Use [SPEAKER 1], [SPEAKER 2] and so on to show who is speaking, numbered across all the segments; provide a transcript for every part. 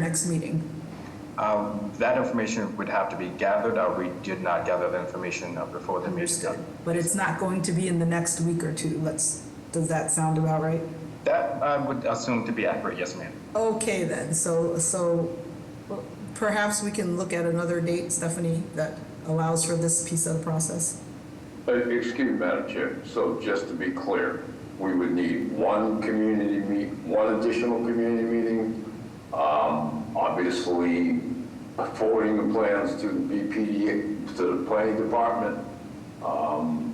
[SPEAKER 1] next meeting?
[SPEAKER 2] Um, That information would have to be gathered. Uh, We did not gather the information uh, before the meeting.
[SPEAKER 1] But it's not going to be in the next week or two, let's, does that sound about right?
[SPEAKER 2] That I would assume to be accurate, yes, ma'am.
[SPEAKER 1] Okay then, so, so perhaps we can look at another date, Stephanie, that allows for this piece of the process?
[SPEAKER 3] Uh, Excuse me, Madam Chair, so just to be clear, we would need one community meet, one additional community meeting. Um, Obviously, forwarding the plans to the BPD, to the planning department. Um,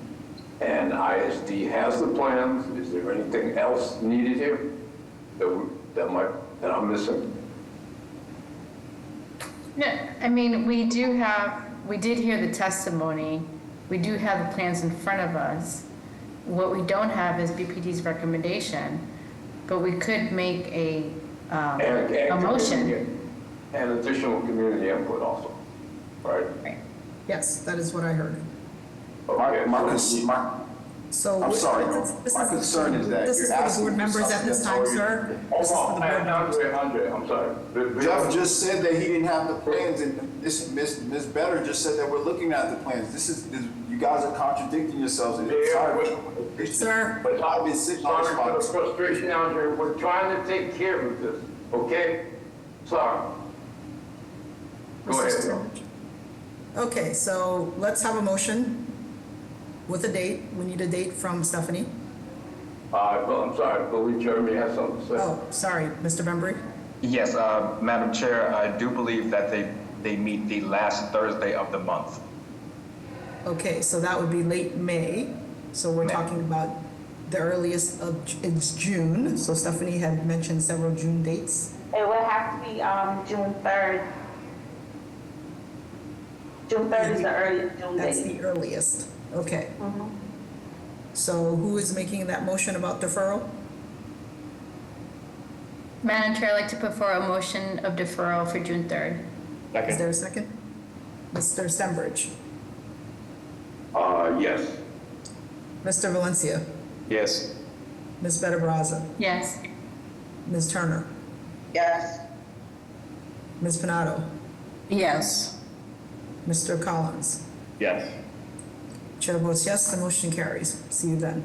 [SPEAKER 3] And ISD has the plans, is there anything else needed here that we- that might, that I'm missing?
[SPEAKER 4] No, I mean, we do have, we did hear the testimony, we do have the plans in front of us. What we don't have is BPD's recommendation, but we could make a, um,
[SPEAKER 3] And- and
[SPEAKER 4] a motion.
[SPEAKER 3] community- And additional community input also, right?
[SPEAKER 4] Right.
[SPEAKER 1] Yes, that is what I heard.
[SPEAKER 5] My,
[SPEAKER 3] Okay,
[SPEAKER 5] my,
[SPEAKER 3] so-
[SPEAKER 5] cons- my,
[SPEAKER 1] So.
[SPEAKER 5] I'm sorry,
[SPEAKER 1] this
[SPEAKER 5] Norm.
[SPEAKER 1] is- this
[SPEAKER 5] My
[SPEAKER 1] is-
[SPEAKER 5] concern is that
[SPEAKER 1] This
[SPEAKER 5] you're
[SPEAKER 1] is for the
[SPEAKER 5] asking
[SPEAKER 1] board
[SPEAKER 5] for
[SPEAKER 1] members at
[SPEAKER 5] something
[SPEAKER 1] this
[SPEAKER 5] that's
[SPEAKER 1] time,
[SPEAKER 5] already-
[SPEAKER 1] sir. This
[SPEAKER 3] Hold
[SPEAKER 1] is for
[SPEAKER 3] on,
[SPEAKER 1] the board members.
[SPEAKER 3] Andre, Andre, I'm sorry.
[SPEAKER 5] Jeff just said that he didn't have the plans, and this, Ms., Ms. Better just said that we're looking at the plans. This is, this- you guys are contradicting yourselves. and it's
[SPEAKER 3] Yeah,
[SPEAKER 5] hard-
[SPEAKER 3] but-
[SPEAKER 5] it's-
[SPEAKER 1] Sir.
[SPEAKER 5] But I've been sitting on this
[SPEAKER 3] Sorry for the
[SPEAKER 5] spot.
[SPEAKER 3] frustration, Andre, we're trying to take care of this, okay? Sorry. Go ahead. Norm.
[SPEAKER 1] Okay, so let's have a motion with a date. We need a date from Stephanie.
[SPEAKER 3] Uh, well, I'm sorry, I believe Jeremy has something to say.
[SPEAKER 1] Oh, sorry, Mr. Bembry.
[SPEAKER 2] Yes, uh, Madam Chair, I do believe that they, they meet the last Thursday of the month.
[SPEAKER 1] Okay, so that would be late May. So we're
[SPEAKER 2] May.
[SPEAKER 1] talking about the earliest of, it's June. So Stephanie had mentioned several June dates.
[SPEAKER 6] It would have to be, um, June third. June third is the earliest June
[SPEAKER 1] That's
[SPEAKER 6] date.
[SPEAKER 1] the earliest. Okay. So who is making that motion about deferral?
[SPEAKER 4] Madam Chair, I'd like to put forward a motion of deferral for June 3rd.
[SPEAKER 1] Is there a second? Mr. Stenbridge, Oh.
[SPEAKER 3] Uh, yes.
[SPEAKER 1] Mr. Valencia,
[SPEAKER 2] Yes.
[SPEAKER 1] Ms. Better Brazza,
[SPEAKER 4] Yes,
[SPEAKER 1] Ms. Turner,
[SPEAKER 6] Yes.
[SPEAKER 1] Ms. Panado,
[SPEAKER 7] Yes,
[SPEAKER 1] Mr. Collins.
[SPEAKER 2] Yes.
[SPEAKER 1] Chair votes yes, the motion carries. See you then.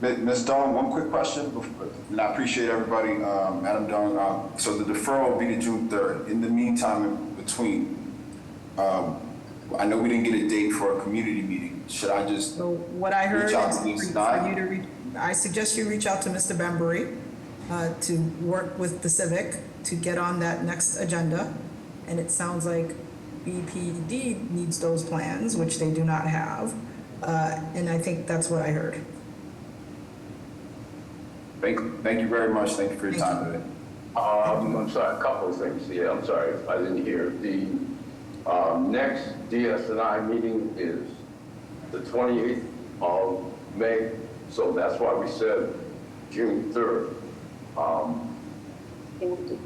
[SPEAKER 5] Mi- Ms. Dawn, one quick question, before- and I appreciate everybody, um, Madam Dawn, uh, so the deferral will be to June third. In the meantime, in between, um, I know we didn't get a date for a community meeting. Should I just
[SPEAKER 1] So what I heard
[SPEAKER 5] Reach out to
[SPEAKER 1] is
[SPEAKER 5] Ms.
[SPEAKER 1] for
[SPEAKER 5] Nye.
[SPEAKER 1] you to, re- I suggest you reach out to Mr. Bembury uh, to work with the civic to get on that next agenda. And it sounds like BPD needs those plans, which they do not have. Uh, And I think that's what I heard.
[SPEAKER 5] Thank, thank you very much. Thank you for your
[SPEAKER 1] Thank
[SPEAKER 5] time today.
[SPEAKER 3] Um, I'm sorry, a couple of things, yeah, I'm sorry, I didn't hear. The, um, next DSNI meeting is the 28th of May, so that's why we said June 3rd. Can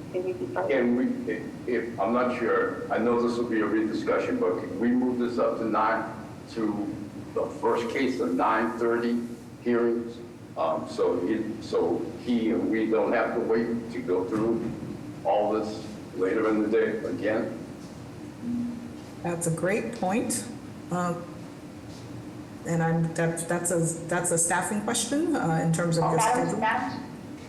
[SPEAKER 3] we, if- if, I'm not sure, I know this will be a rediscussion, but can we move this up to nine, to the first case of 9:30 hearings? Um, So he, so he and we don't have to wait to go through all this later in the day again?
[SPEAKER 1] That's a great point. Um, And I'm, that's, that's a, that's a staffing question uh, in terms of your
[SPEAKER 6] Madam,
[SPEAKER 1] schedule.
[SPEAKER 6] Madam-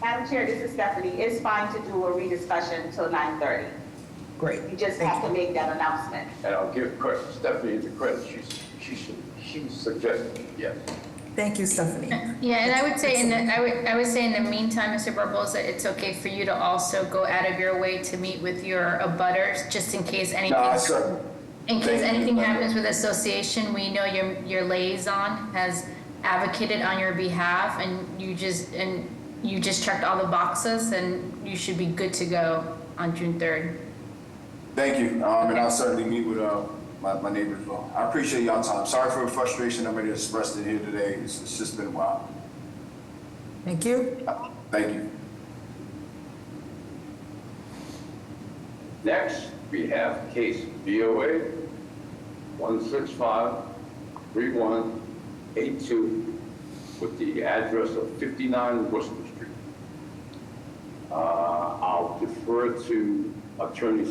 [SPEAKER 6] Madam Chair, this is Stephanie. It's fine to do a rediscussion till nine thirty.
[SPEAKER 1] Great.
[SPEAKER 6] You just
[SPEAKER 1] Thank
[SPEAKER 6] have to make that announcement.
[SPEAKER 3] And I'll give credit, Stephanie the credit, she, she, she suggested, yes.
[SPEAKER 1] Thank you, Stephanie.
[SPEAKER 4] yeah, and I would say, in the, I would, I would say in the meantime, Mr. Barbosa, it's okay for you to also go out of your way to meet with your abutters, just in case anything.
[SPEAKER 5] No, I cer-
[SPEAKER 4] In case
[SPEAKER 5] Thank you,
[SPEAKER 4] anything
[SPEAKER 5] Madam.
[SPEAKER 4] happens with association, we know your, your liaison has advocated on your behalf and you just, and you just checked all the boxes and you should be good to go on June third.
[SPEAKER 5] Thank you, um, and I'll certainly meet with, uh, my, my neighbors as well. I appreciate y'all time. Sorry for the frustration I'm expressed in here today. It's, it's just been a while.
[SPEAKER 1] Thank you.
[SPEAKER 5] Uh, Thank you.
[SPEAKER 3] Next, we have case BOA 1653182 with the address of 59 Worcester Street. Uh, I'll defer to Attorney